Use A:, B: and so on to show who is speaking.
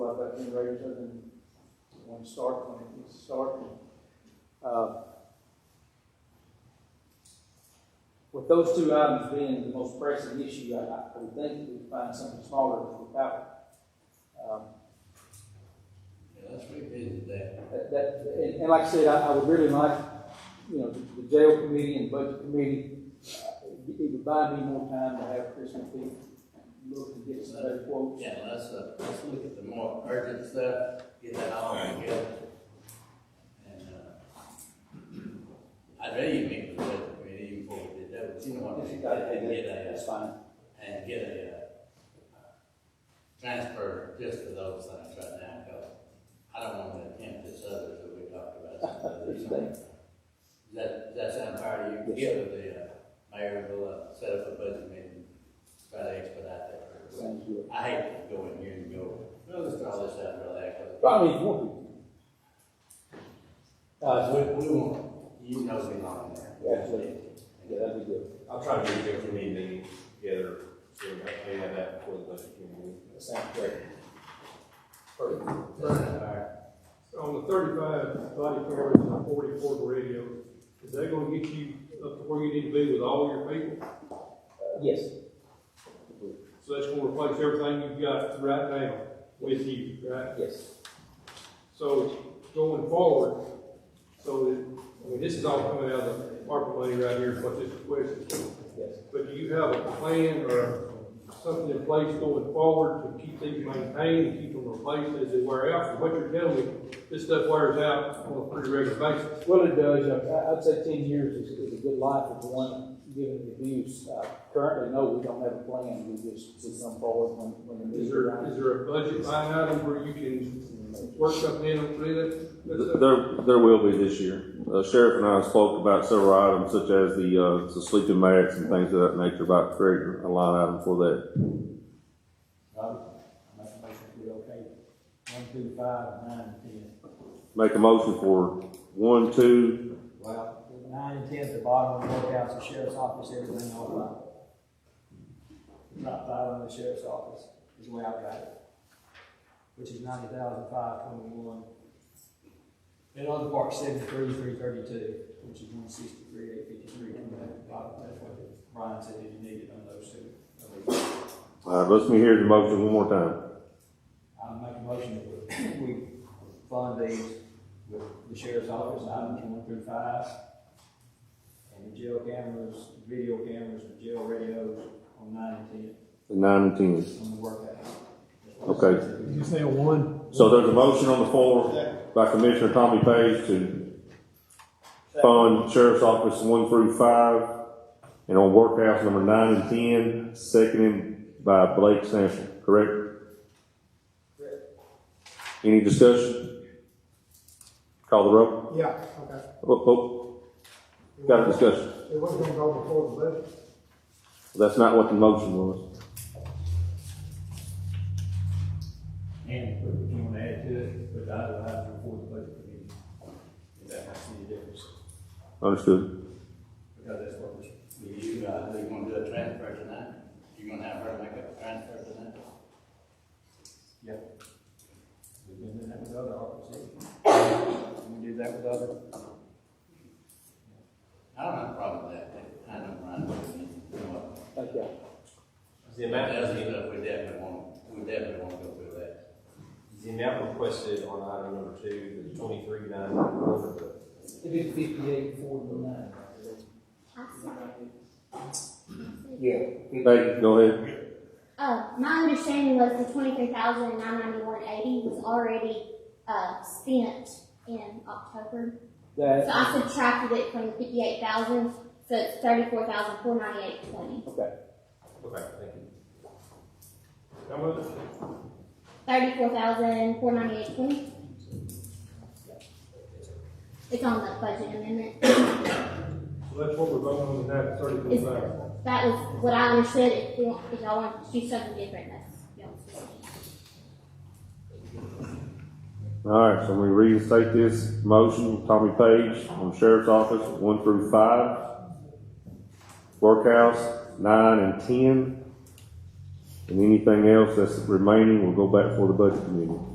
A: that generator and one start when it needs to start. Uh, With those two items being the most pressing issue, I, I would think we could find something smaller without. Um,
B: Yeah, let's revisit that.
A: that, that- and, and like I said, I, I would really like, you know, the the jail committee and budget committee, uh, it it would buy me more time to have Chris and Pete look and get some better quotes.
B: Yeah, let's, uh, let's look at the more urgent stuff, get that all together. And, uh, I'd rather you meet with the budget committee even before we did that, but you know what,
A: If you
B: and
A: got it,
B: get a,
A: That's fine.
B: and get a, uh, transfer just for those things right now, because I don't want to attempt this other that we talked about. some other
A: Understand.
B: thing. That, that sound fair to you,
A: Yes,
B: give the, uh, mayor, will uh, set up a budget meeting, try to expedite that.
A: Sounds good.
B: I hate to go in here and go, no, let's draw this out real quick.
A: Probably if you want to. Uh,
B: Uh, we, we won't, you know me long there.
A: Yeah, absolutely. yeah, that'd be good.
C: I'll try to get a different meeting together, so we may have that before the budget committee.
A: That sounds great.
B: That's not fair.
D: On the thirty-five body cameras and the forty portable radios, is that gonna get you up to where you need to be with all your people?
A: Uh, Yes.
D: So that's gonna replace everything you've got right now with you, right?
A: Yes.
D: So going forward, so that, I mean, this is all coming out of the ARPA money right here, what this request is.
A: Yes.
D: But do you have a plan or something in place going forward to keep these maintained, keep them replaced as they wear out? From what you're telling me, this stuff wears out on a pretty regular basis.
A: Well, it does, I, I'd say ten years is, is a good life if one given the abuse. Uh, currently, no, we don't have a plan, we just, just come forward when, when the
D: Is
A: needs
D: there,
A: arise.
D: is there a budget line item where you can work something in and do that? That's a-
E: There, there will be this year. Uh, Sheriff and I spoke about several items such as the, uh, the sleeping mats and things of that nature about creating a line item for that.
F: Robert, I make a motion to be okay. One, two, five, nine, and ten.
E: Make a motion for one, two,
F: Well, nine and ten at the bottom of the courthouse, the sheriff's office, everything all right. Drop five on the sheriff's office, is the way I got it, which is ninety thousand five twenty-one. And on the park, seventy-three, three thirty-two, which is one sixty-three, eight fifty-three, from that bottom, that's what Brian said, if you needed on those two.
E: all right, let's me hear the motion one more time.
F: I make a motion that we, we fund these with the sheriff's office, items one through five. And the jail cameras, video cameras, the jail radios on nine and
E: The Nine and ten.
F: ten, on the workout.
E: Okay. So there's a motion on the floor by Commissioner Tommy Page to fund Sheriff's Office one through five and on workhouse number nine and ten, seconded by Blake Sampson, correct? Any discussion? Call the roll.
G: Yeah, okay.
E: Oh, oh, got a discussion.
G: It wasn't gonna go before the budget.
E: That's not what the motion was.
F: And put, if you wanna add to it, put the other items before the budget committee. If that makes any difference,
E: Understood.
F: because that's what we,
B: Do you, uh, you gonna do a transfer tonight? You gonna have her make a transfer tonight?
F: yeah. We've been doing that with other officers. We do that with other.
B: I don't have a problem with that, I don't mind doing it, you know what?
A: Thank you.
C: Is the
B: That
C: amount,
B: does
C: is
B: mean that we definitely won't, we definitely won't go through that.
C: the amount requested on item number two, the twenty-three nine one,
A: It'd be fifty-eight, forty-nine.
E: Hey, go ahead.
H: Uh, my understanding was the twenty-three thousand nine ninety-one eighty was already, uh, spent in October. So
A: That,
H: I subtracted it from the fifty-eight thousand, so it's thirty-four thousand four ninety-eight twenty.
A: okay,
C: okay, thank you.
D: How much?
H: Thirty-four thousand four ninety-eight twenty. It's on the budget amendment.
D: So that's what we're voting on tonight, thirty-four
H: Is-
D: thousand.
H: That was what I understood. If we want, if y'all want to do something different, that's, y'all's.
E: All right, so we reinstate this motion, Tommy Page on Sheriff's Office, one through five. Workhouse, nine and ten. And anything else that's remaining will go back for the budget committee.